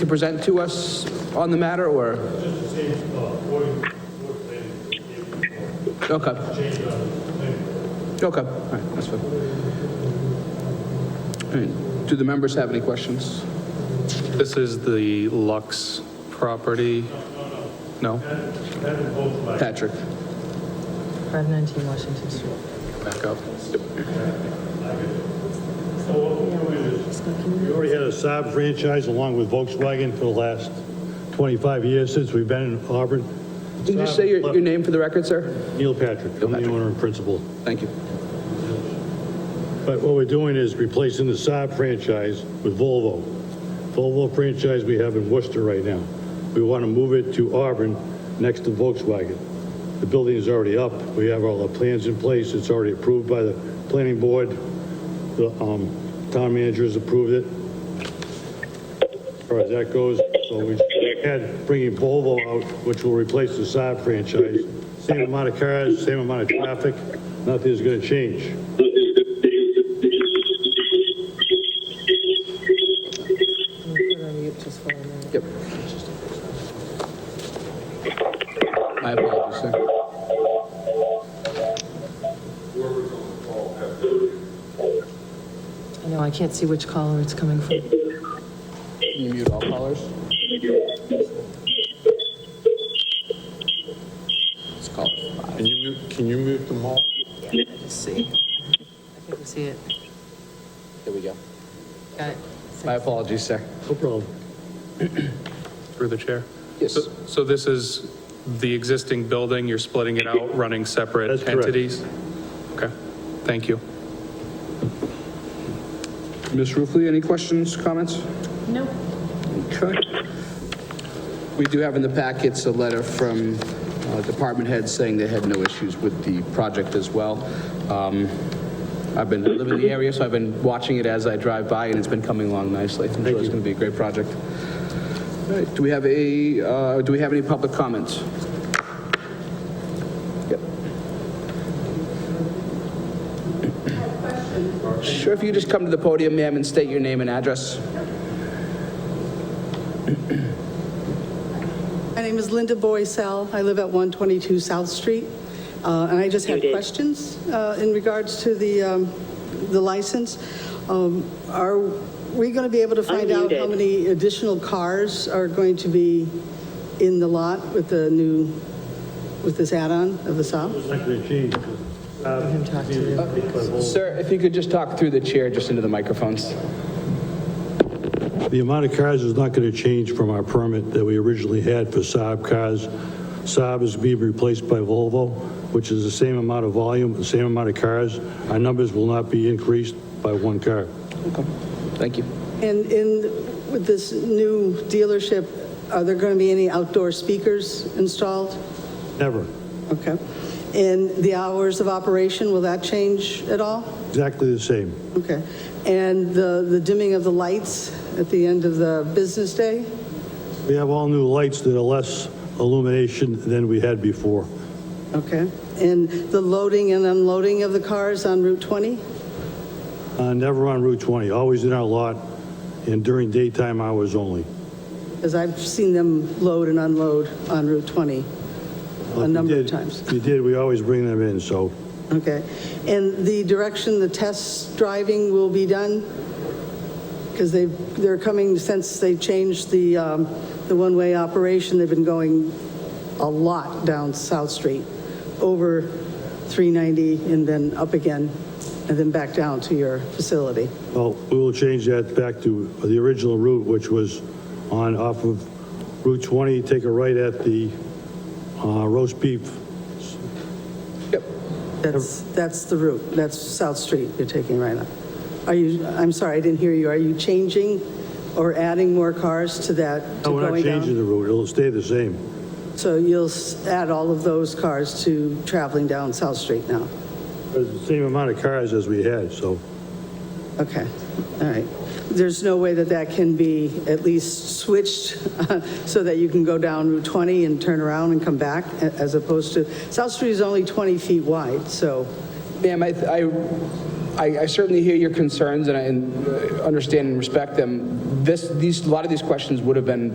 to present to us on the matter, or? Okay. Okay, all right, that's fine. All right, do the members have any questions? This is the Lux property? No? Patrick, 519 Washington Street. Back up. We already had a Saab franchise along with Volkswagen for the last 25 years since we've been in Auburn. can you just say your, your name for the record, sir? Neil Patrick, I'm the owner and principal. Thank you. But what we're doing is replacing the Saab franchise with Volvo. Volvo franchise we have in Worcester right now. We want to move it to Auburn next to Volkswagen. The building is already up. We have all the plans in place. It's already approved by the planning board. The um, town manager has approved it. As far as that goes, so we had bringing Volvo out, which will replace the Saab franchise. Same amount of cars, same amount of traffic. Nothing's going to change. I'm gonna put it on mute just for a minute. Yep. My apologies, sir. I know, I can't see which caller it's coming from. Can you mute all callers? It's called five. Can you, mute- can you mute them all? Yeah, I just see. I think we see it. There we go. Got it. My apologies, sir. No problem. Through the chair? Yes. So- So this is the existing building, you're splitting it out, running That's separate correct. entities? Okay, thank you. Ms. Ruffey, any questions, comments? Nope. Okay. We do have in the packets a letter from uh, department heads saying they had no issues with the project as well. Um, I've been, I live in the area, so I've been watching it as I drive by, and it's been coming along nicely. I'm sure it's going to be a great project. All right, do we have a, uh, do we have any public comments? Yep. Sure, if you just come to the podium, ma'am, and state your name and address. My name is Linda Boycell. I live at 122 South Street, Uh, and I just had questions uh, in regards to the um, the license. Um, Are we going to be able to find out how many additional cars are going to be in the lot with the new, with this add-on of the Saab? It's not going to change. Let him talk to you. Sir, if you could just talk through the chair, just into the microphones. The amount of cars is not going to change from our permit that we originally had for Saab cars. Saab is being replaced by Volvo, which is the same amount of volume, the same amount of cars. Our numbers will not be increased by one car. Thank you. And in, with this new dealership, are there going to be any outdoor speakers installed? Never. Okay. And the hours of operation, will that change at all? Exactly the same. Okay. And the the dimming of the lights at the end of the business day? We have all new lights that are less illumination than we had before. Okay. And the loading and unloading of the cars on Route 20? Uh, Never on Route 20, always in our lot and during daytime hours only. Because I've seen them load and unload on Route 20 If a you number of did- times. if You did, we always bring them in, so Okay. And the direction the test driving will be done? Because they, they're coming, since they changed the, um, the one-way operation, they've been going a lot down South Street, over 390 and then up again, and then back down to your facility. Well, we will change that back to the original route, which was on, off of Route 20, take a right at the uh, roast beef. That's, that's the route, that's South Street you're taking right now. Are you, I'm sorry, I didn't hear you, are you changing or adding more cars to that, to No, we're not going Oh, down? changing the route, it'll stay the same. So you'll s- add all of those cars to traveling down South Street now? It's the same amount of cars as we had, so Okay, all right. There's no way that that can be at least switched so that you can go down Route 20 and turn around and come back a- as opposed to, South Street is only 20 feet wide, so, Ma'am, I, I- I certainly hear your concerns, and I and, uh, understand and respect them. this, these, a lot of these questions would have been